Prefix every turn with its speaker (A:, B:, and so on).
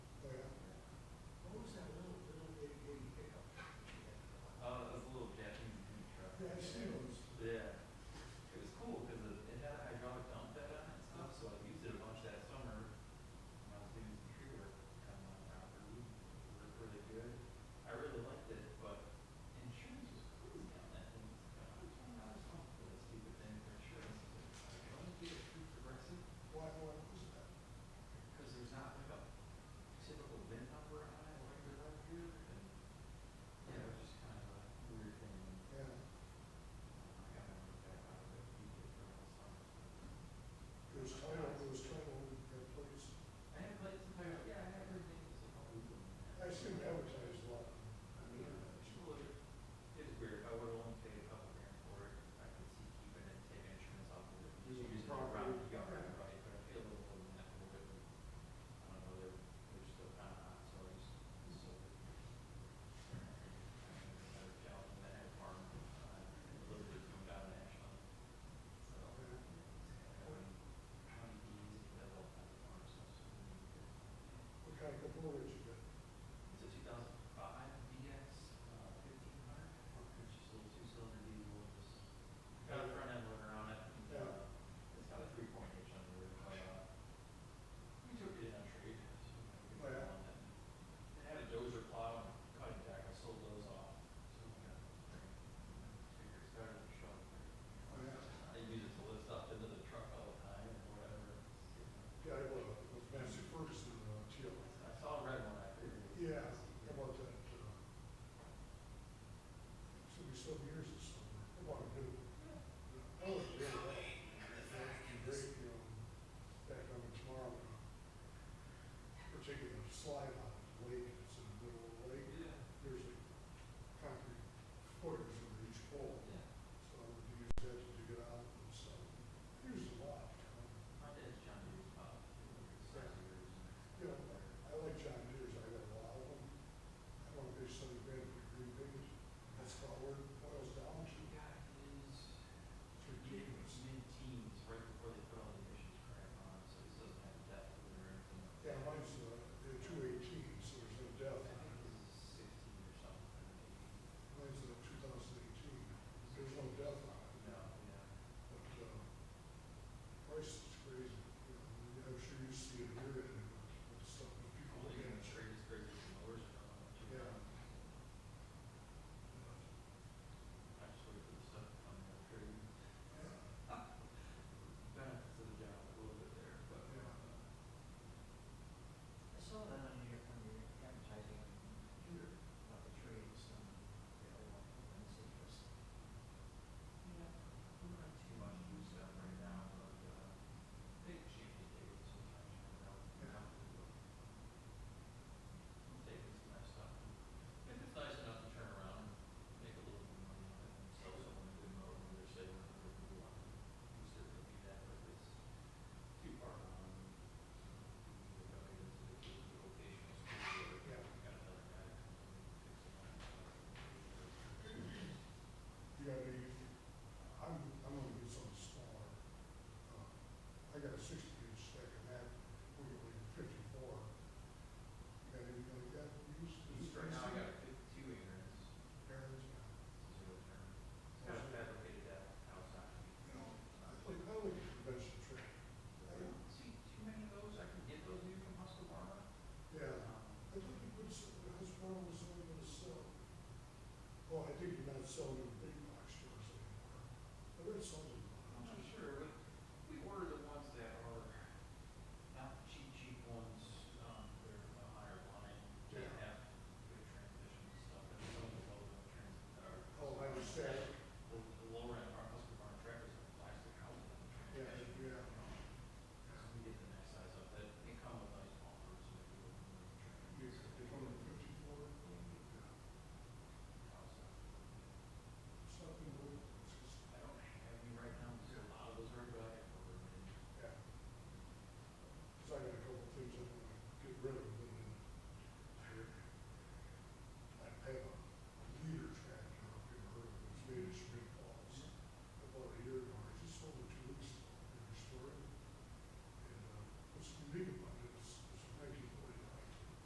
A: Oh, "Oh,
B: a couple of years ago.
A: It's a two thousand five DX fifteen hundred, which is a little two-cylinder diesel with this, got a front end loader on it. and, uh, It's got a three point H on the roof. uh, We took it in on trade. so we got
B: Oh, Yeah.
A: one that- It had a dozer plow and cutting deck, I sold those off. So we got figure it's better than shoveling.
B: Oh, yeah.
A: They use it to lift stuff into the truck all the time and whatever. it's, you know.
B: Guy with, with Massey Ferguson, uh, chill.
A: I saw a red one, I figured. it was-
B: Yeah, how about that, uh, should be some years or something, I want to do. it. I was really, great, um, you know, back on it tomorrow. We're taking a uh, slide out of the lake. uh, uh, uh, Uh, Oh,
A: Oh, um,
B: Oh,